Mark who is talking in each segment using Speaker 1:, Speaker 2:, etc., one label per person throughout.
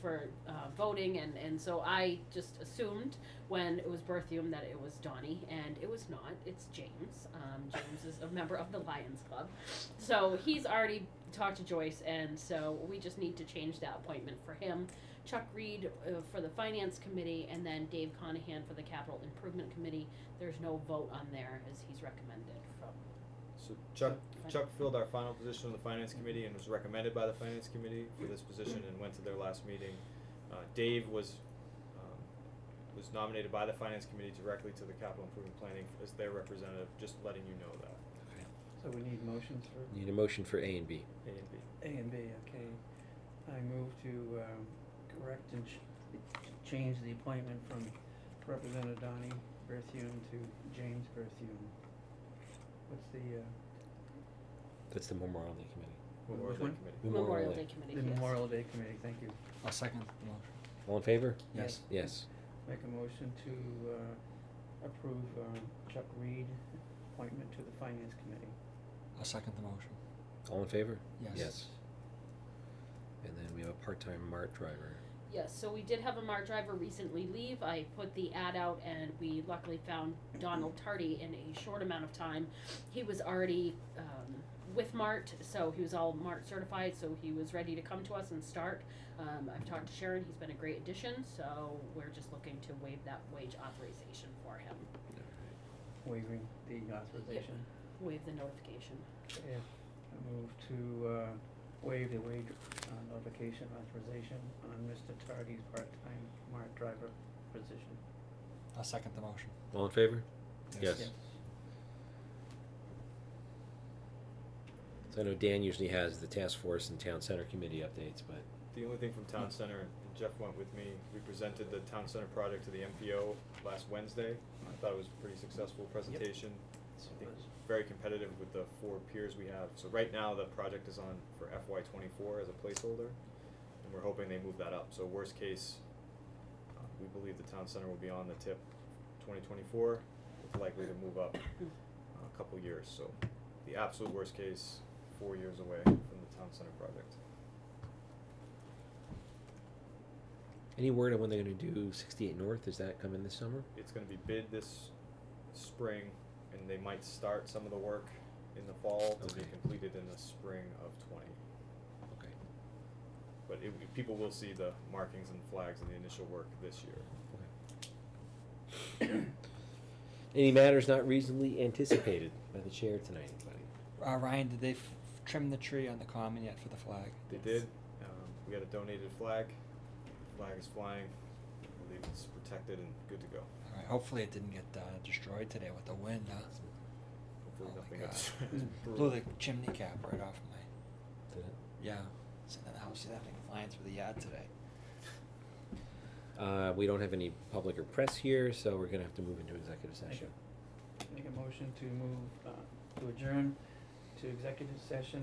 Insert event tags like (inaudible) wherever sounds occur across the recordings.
Speaker 1: for uh, voting, and, and so I just assumed when it was Berthium that it was Donnie, and it was not. It's James. Um, James is a member of the Lions Club. So he's already talked to Joyce, and so we just need to change that appointment for him. Chuck Reed uh, for the Finance Committee, and then Dave Conahan for the Capital Improvement Committee. There's no vote on there, as he's recommended from
Speaker 2: So Chuck, Chuck filled our final position on the finance committee and was recommended by the finance committee for this position and went to their last meeting. Uh, Dave was, um, was nominated by the finance committee directly to the capital improvement planning as their representative, just letting you know that,
Speaker 3: So we need motions for
Speaker 4: Need a motion for A and B.
Speaker 2: A and B.
Speaker 3: A and B, okay. I move to um, correct and ch- change the appointment from Representative Donnie Berthium to James Berthium. What's the, uh,
Speaker 4: That's the Memorial Day Committee.
Speaker 3: Which
Speaker 2: Memorial Day
Speaker 3: one?
Speaker 2: Committee.
Speaker 1: Memorial Day Committee.
Speaker 3: the
Speaker 1: yes.
Speaker 3: Memorial Day Committee, thank you.
Speaker 5: I'll second the motion.
Speaker 4: All in favor?
Speaker 5: Yes.
Speaker 4: Yes.
Speaker 3: Make a motion to uh, approve um, Chuck Reed appointment to the Finance Committee.
Speaker 5: I'll second the motion.
Speaker 4: All in favor?
Speaker 5: Yes.
Speaker 4: And then we have a part-time MART driver.
Speaker 1: Yes, so we did have a MAR driver recently leave. I put the ad out and we luckily found Donald Tardy in a short amount of time. He was already um, with MART, so he was all MART certified, so he was ready to come to us and start. Um, I've talked to Sharon, he's been a great addition, so we're just looking to waive that wage authorization for him,
Speaker 3: Waiving the authorization.
Speaker 1: waive the notification.
Speaker 3: Yeah. I move to uh, waive the wage uh, notification authorization on Mr. Tardy's part-time mart driver position.
Speaker 5: I'll second the motion.
Speaker 4: All in favor? Yes. So I know Dan usually has the task force and town center committee updates, but
Speaker 2: The only thing from
Speaker 3: Hmm.
Speaker 2: town center, and Jeff went with me, we presented the town center project to the MPO last Wednesday. I thought it was a pretty successful presentation.
Speaker 3: Yes,
Speaker 2: I
Speaker 3: it
Speaker 2: think
Speaker 3: was.
Speaker 2: very competitive with the four peers we have. So right now, the project is on for FY twenty-four as a placeholder, and we're hoping they move that up. So worst case, uh, we believe the town center will be on the tip twenty twenty-four, it's likely to move up uh, a couple years. So the absolute worst case, four years away from the town center project.
Speaker 4: any word on when they're gonna do sixty-eight North? Is that coming this summer?
Speaker 2: It's gonna be bid this spring, and they might start some of the work in the fall to be
Speaker 4: Okay.
Speaker 2: completed in the spring of twenty.
Speaker 4: Okay,
Speaker 2: But it, people will see the markings and flags of the initial work this year.
Speaker 4: okay. (coughs) Any matters not reasonably anticipated by the chair tonight, anybody?
Speaker 5: Uh, Ryan, did they f- trim the tree on the common yet for the flag?
Speaker 2: They did. Um, we got a donated flag. Flag is flying. I believe it's protected and good to go.
Speaker 5: All right. Hopefully, it didn't get uh, destroyed today with the wind. Huh?
Speaker 2: Hopefully
Speaker 5: oh
Speaker 2: nothing
Speaker 4: (laughs)
Speaker 5: my
Speaker 2: gets (laughs)
Speaker 5: God.
Speaker 2: brutal.
Speaker 5: (laughs) Blew the chimney cap right off my.
Speaker 4: Did it?
Speaker 5: Yeah. Sitting in the house, you that thing flying through the yard today.
Speaker 4: Uh, we don't have any public or press here, so we're gonna have to move into executive
Speaker 3: Thank
Speaker 4: session.
Speaker 3: Make a motion to move, uh, to adjourn to executive session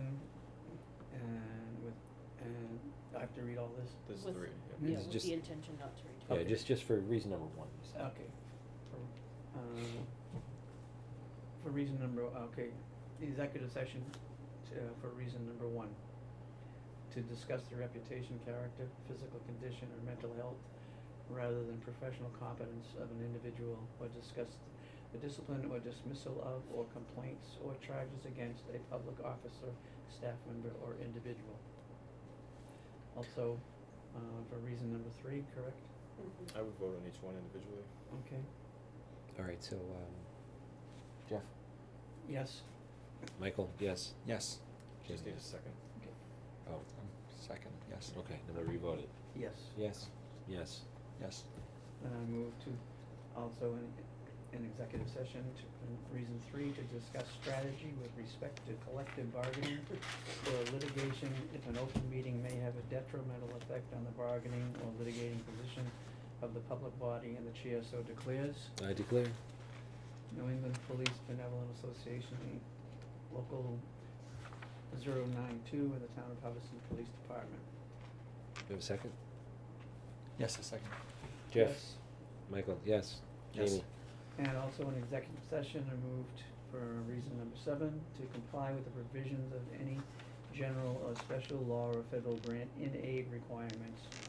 Speaker 3: and with, and I have to read all this?
Speaker 2: There's
Speaker 1: With-
Speaker 2: three.
Speaker 3: Yeah,
Speaker 1: Yeah,
Speaker 4: it's
Speaker 1: with
Speaker 4: just-
Speaker 1: the intention not to return.
Speaker 4: Yeah,
Speaker 3: Okay.
Speaker 4: just, just for reason number one. you said.
Speaker 3: Okay. For, um, for reason number, okay, the executive session, uh, for reason number one. To discuss the reputation, character, physical condition, or mental health, rather than professional competence of an individual, or discuss the discipline or dismissal of, or complaints or charges against a public officer, staff member, or individual. Also, uh, for reason number three, correct?
Speaker 1: Mhm.
Speaker 2: I would vote on each one individually.
Speaker 3: Okay,
Speaker 4: All right, so, um, Jeff,
Speaker 3: yes?
Speaker 4: Michael, yes,
Speaker 5: Yes.
Speaker 4: Jim,
Speaker 2: Just need a
Speaker 4: yes.
Speaker 2: second.
Speaker 3: Okay.
Speaker 4: Oh,
Speaker 5: Um, second. Yes.
Speaker 4: okay, then we revote it.
Speaker 3: Yes.
Speaker 4: Yes, yes.
Speaker 5: Yes.
Speaker 3: Then I move to also in, in executive session to, in reason three, to discuss strategy with respect to collective bargaining or litigation if an open meeting may have a detrimental effect on the bargaining or litigating position of the public body and the chair so declares.
Speaker 4: I Uh, declare.
Speaker 3: New England Police Benevolent Association, local zero nine two in the town of Hubbardston Police Department.
Speaker 4: Do you have a second?
Speaker 5: Yes. A second.
Speaker 4: Jeff?
Speaker 3: Yes.
Speaker 4: Michael, yes.
Speaker 5: Yes.
Speaker 4: Jamie?
Speaker 3: And also in executive session, I moved for reason number seven, to comply with the provisions of any general or special law or federal grant in aid requirements